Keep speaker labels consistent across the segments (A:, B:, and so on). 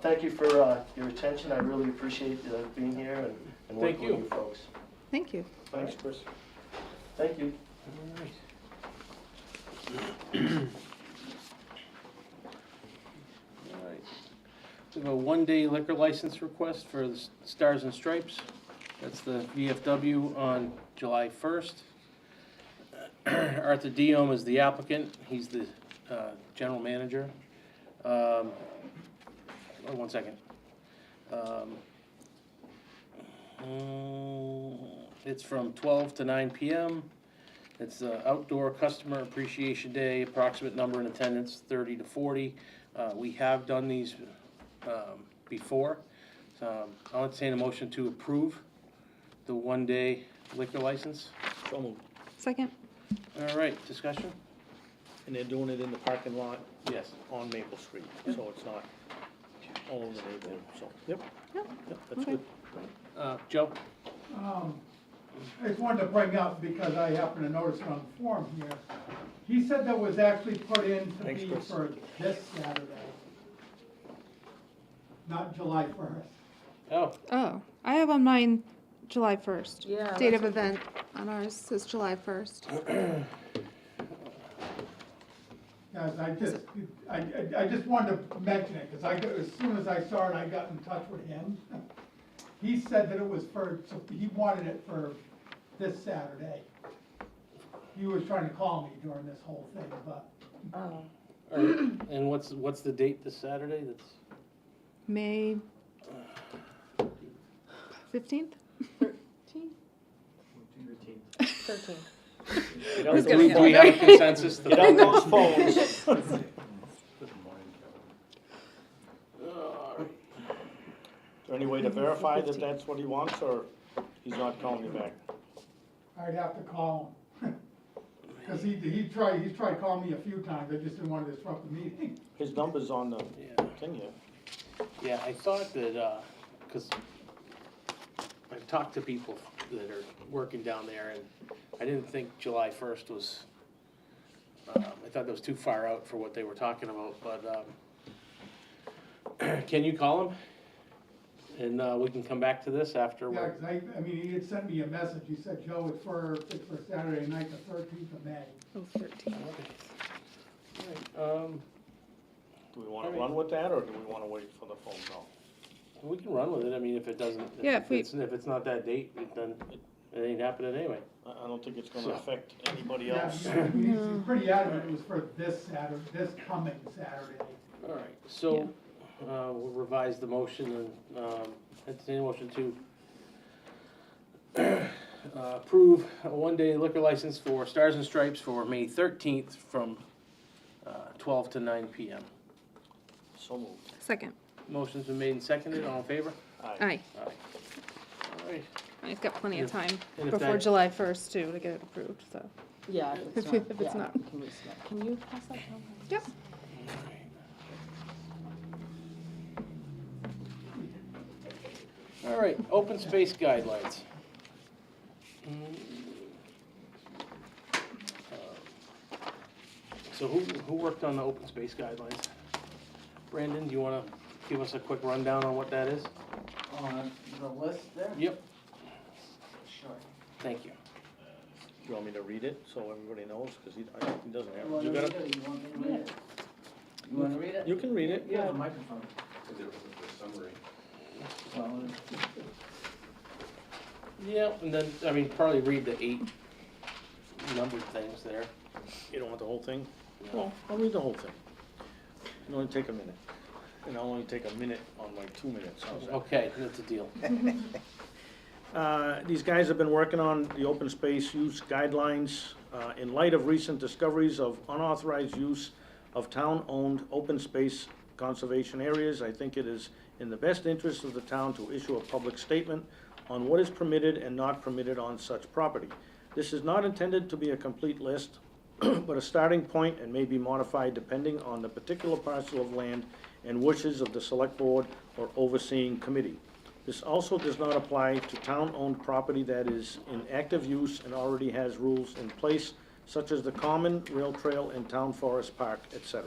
A: thank you for uh, your attention. I really appreciate uh, being here and- and working
B: Thank
A: with
B: you.
A: you folks.
C: Thank you.
B: Thanks, Chris.
A: Thank you.
B: All right. All right. We have a one-day liquor license request for the Stars and Stripes. That's the VFW on July 1st. Arthur Diom is the applicant. He's the uh, general manager. Um, oh, One second. Um, mm, It's from 12 to 9 PM. It's the Outdoor Customer Appreciation Day, approximate number in attendance, thirty to forty. Uh, we have done these, um, before. Um, I'll entertain a motion to approve the one-day liquor license.
D: So moved.
C: Second?
B: All right, discussion?
D: And they're doing it in the parking lot
B: Yes.
D: on Maple Street, so it's not all over the neighborhood, so. Yep.
C: Yep.
D: Yep, that's
C: Okay.
D: good.
B: Uh, Joe?
E: Um, I just wanted to bring up, because I happen to notice it on the form here, he said that was actually put in to
D: Thanks,
E: be
D: Chris.
E: for this Saturday, not July first.
B: Oh,
C: Oh, I have on mine July 1st.
F: Yeah,
C: Date of event on ours says July 1st.
E: Guys, I just, I, I I just wanted to mention it, because I, got- as soon as I saw it, I got in touch with him. He said that it was for, he wanted it for this Saturday. He was trying to call me during this whole thing, but
F: Oh,
B: all right. and what's, what's the date this Saturday? That's,
C: May 15th?
F: thirteen.
D: Get
B: do
D: out
B: we-
D: those
B: do we have a consensus?
D: Get out those phones.
B: All right.
D: Is there any way to verify that that's what he wants, or he's not calling you back?
E: I'd have to call him. Cause he, he tried, he tried calling me a few times, I just didn't wanna disrupt the meeting.
D: His number's on the
B: Yeah.
D: thing here.
B: Yeah, I thought that, uh 'cause I've talked to people that are working down there, and I didn't think July first was, um, I thought that was too far out for what they were talking about, but, um, can you call him? And, uh, we can come back to this after,
E: Yeah,
B: we're-
E: 'cause I, I mean, he had sent me a message, he said, Joe, it's for, it's for Saturday night, the thirteenth of May.
C: Oh, 13th.
B: um,
D: Do we wanna run with that, or do we wanna wait for the phone call?
B: we can run with it, I mean, if it doesn't,
C: Yeah, if
B: if
C: we-
B: it's, if it's not that date, it doesn't, it ain't happening anyway.
D: I, I don't think it's gonna
B: So-
D: affect anybody
E: Yeah,
D: else.
E: I mean, he's- he's pretty adamant it was for this Saturday, this coming Saturday.
B: All right, so, uh, we'll revise the motion and, um, entertain a motion to uh, approve a one-day liquor license for Stars and Stripes for May thirteenth from, uh, twelve to nine PM.
D: So moved.
C: Second.
B: Motion's been made and seconded, all in favor?
D: Aye.
C: Aye.
B: All right,
C: I've got plenty of time
B: and if
C: before
B: that-
C: July 1st too to get it approved, so.
F: Yeah,
C: If it- if it's
F: yeah,
C: not.
F: Can we snap- can you pass that down?
C: Yep.
B: All right, open space guidelines. Uh, So who, who worked on the open space guidelines? Brandon, do you wanna give us a quick rundown on what that is?
G: on Oh, uh, the list there?
B: Yep.
G: Sure.
B: Thank you.
D: Do you want me to read it, so everybody knows, cause he, I, he doesn't
G: You
D: have,
G: wanna
D: you
G: read
D: gotta,
G: it, or you want me to read it? You wanna read it?
D: you can read it.
G: You have a microphone. Well,
B: Yep, and then, I mean, probably read the eight numbered things there.
D: You don't want the whole thing? Well, I'll read the whole thing. It'll only take a minute. And I'll only take a minute on my two minutes, how's that?
B: Okay, that's a deal.
D: Uh, These guys have been working on the open space use guidelines uh, in light of recent discoveries of unauthorized use of town-owned open space conservation areas. I think it is in the best interest of the town to issue a public statement on what is permitted and not permitted on such property. This is not intended to be a complete list, but a starting point and may be modified depending on the particular parcel of land and wishes of the select board or overseeing committee. This also does not apply to town-owned property that is in active use and already has rules in place, such as the common, rail trail, and town forest park, etc.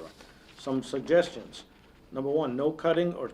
D: Some suggestions. Number one, no cutting or